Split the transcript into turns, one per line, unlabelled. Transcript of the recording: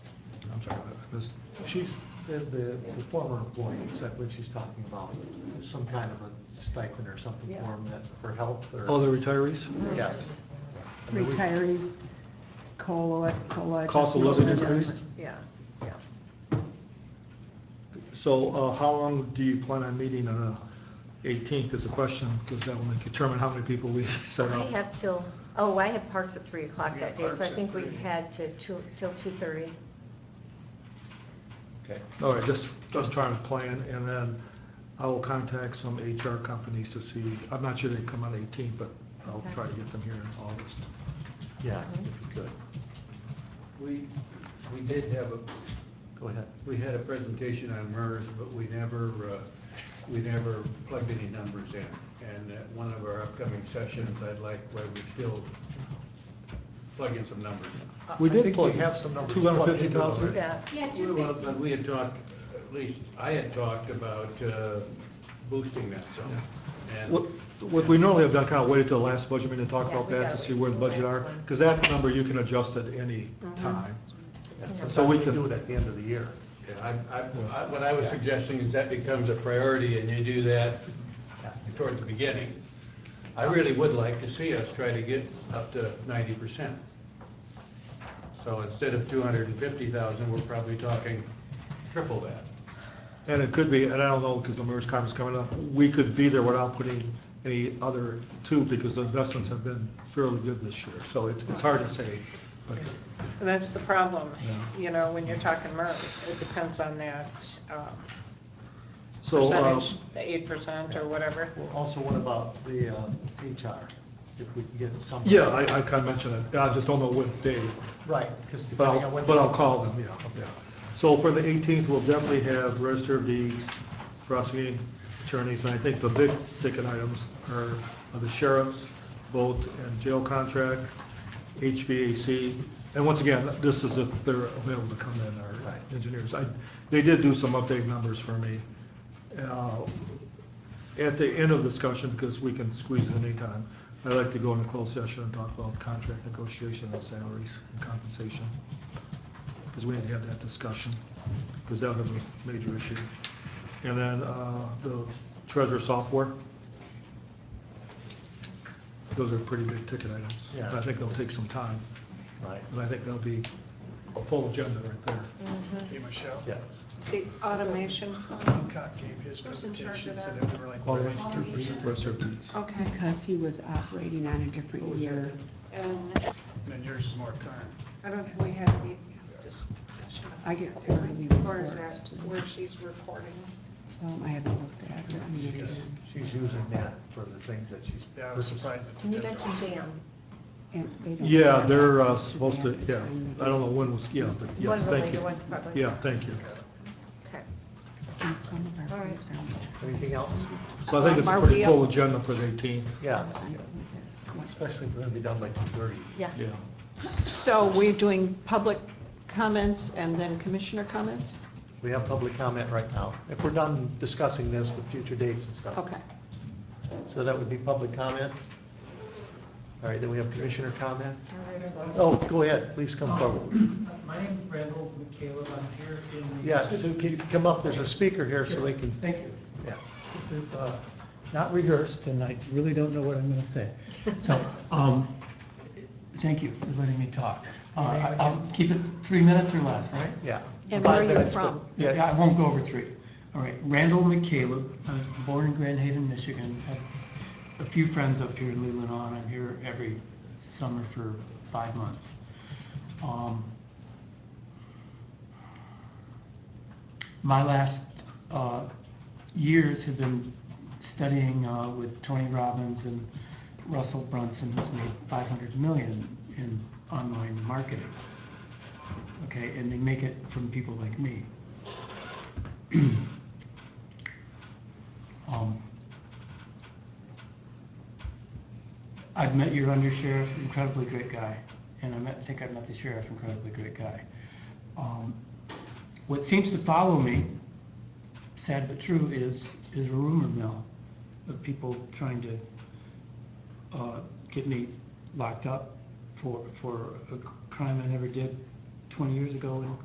This, she's, the, the the former employee said when she's talking about some kind of a stipend or something for
Yeah.
'em that, for health or.
Oh, the retirees?
Mm.
Yes. I mean, we-
Retirees, COLA, COLA.
Cost of living
adjustment.
increase?
Yeah, yeah.
So uh, how long do you plan on meeting on the 18th is the question, because that will determine how many people we set
I
up.
have till, oh, I had parks at three o'clock that day, so I
parks at
think we
three.
had to, two- till two thirty.
Okay.
All right, just, just trying to plan, and then I will contact some HR companies to see, I'm not sure they come on 18th, but I'll
Okay.
try to get them here in August.
Yeah, if you could,
We, we did have a,
go ahead.
we had a presentation on MERS, but we never, uh, we never plugged any numbers in. And at one of our upcoming sessions, I'd like, where we still plug in some numbers.
I-
We
I
did
think
plug
we have some numbers. plugged in
250,000.
already.
Yeah.
Yeah, two
Well,
fifty.
but we had talked, at least I had talked about uh, boosting that some. And-
What, what we normally have done, kind of waited till the last budget meeting to talk about
Yeah, we
that, to
gotta
see
wait
where the
till the
budget
last
are,
one. Mm-hmm.
because that number you can adjust at any
Mhm.
time.
Yeah,
So we
sometimes
can-
do it at the end of the year.
Yeah, I, I, I- what I was suggesting is that becomes a priority and you do that toward the beginning. I really would like to see us try to get up to ninety percent. So instead of two hundred and fifty thousand, we're probably talking triple that.
And it could be, and I don't know, because the mayor's conference is coming up, we could be there without putting any other two, because the investments have been fairly good this year, so it's, it's hard to say, but,
And That's the problem,
Yeah.
you know, when you're talking MERS, it depends on that um,
so, uh,
percentage, the eight percent or whatever.
Well, also, what about the uh, HR, if we can get some.
yeah, I, I kind of mentioned it, I just don't know what day,
Right, because
but
depending on
I'll,
when.
but I'll call them, yeah, yeah. So for the eighteenth, we'll definitely have register of deeds, prosecuting attorneys, and I think the big ticket items are the sheriff's, boat and jail contract, HVAC, and once again, this is if they're available to come in, our
Right.
engineers. I, they did do some update numbers for me. Uh, At the end of discussion, because we can squeeze it anytime, I'd like to go into closed session and talk about contract negotiation and salaries and compensation. Because we need to have that discussion, because that was a major issue. And then, uh, the treasurer software. Those are pretty big ticket items.
Yeah.
And I think they'll take some time,
Right,
and I think that'll be a full agenda right there.
Mm-hmm.
Hey, Michelle.
yes.
The automation,
Babcock gave his
Who's in charge of
presentations
that?
and then we were like.
All the way
"Where are
to
you?"
register of deeds.
okay,
Because he was operating on a
Oh,
different year.
and
And then yours is more current.
I don't think we have any discussion.
I get quarterly
Or is
reports.
that
too.
where she's reporting?
Um, I haven't looked at it. I mean, it is-
She's using that for the things that she's.
Yeah, I was surprised that
And
you
you
did that.
mentioned Dan.
and they don't
Yeah,
have
they're uh,
access to
supposed to,
that
yeah,
time that
I don't know when was, yeah, but yes,
One
thank
related,
you.
one's public.
Yeah, thank you.
Okay.
And some of
All
our
right.
groups aren't.
Anything else?
So I think it's a
Are
pretty
we
full
up?
agenda for the 18th.
Yeah,
I don't think that's- yeah.
especially if we're gonna be done by two thirty.
Yeah.
Yeah.
So we're doing public comments and then commissioner comments?
We have public comment right now. If we're done discussing this with future dates and stuff.
Okay.
So that would be public comment. All right, then we have commissioner comment.
Now there's one.
Oh, go ahead, please come forward.
My name's Randall McCaleb, I'm here in. the-
Yeah, so can you come up, there's a speaker here, so they can,
Thank you.
yeah.
This is uh, not rehearsed, and I really don't know what I'm going to say. So, um, thank you for letting me talk. Uh, I- I'll keep it three minets or less, right?
Yeah.
And
Five
where are you
minutes, but-
from?
Yeah,
Yeah, I won't go over three. All right, Randall McCaleb, I was born in Grand Haven, Michigan. Have A few friends up here in Leelanau, and I'm here every summer for five months. Um, my last uh, years have been studying uh, with Tony Robbins and Russell Brunson, who's made 500 million in online marketing. Okay, and they make it from people like me. um, I've met your undersheriff, incredibly great guy, and I met, think I met the sheriff, incredibly great guy. Um, what seems to follow me, sad but true, is is a rumor mill of people trying to uh, get me locked up for for a crime I never did 20 years ago in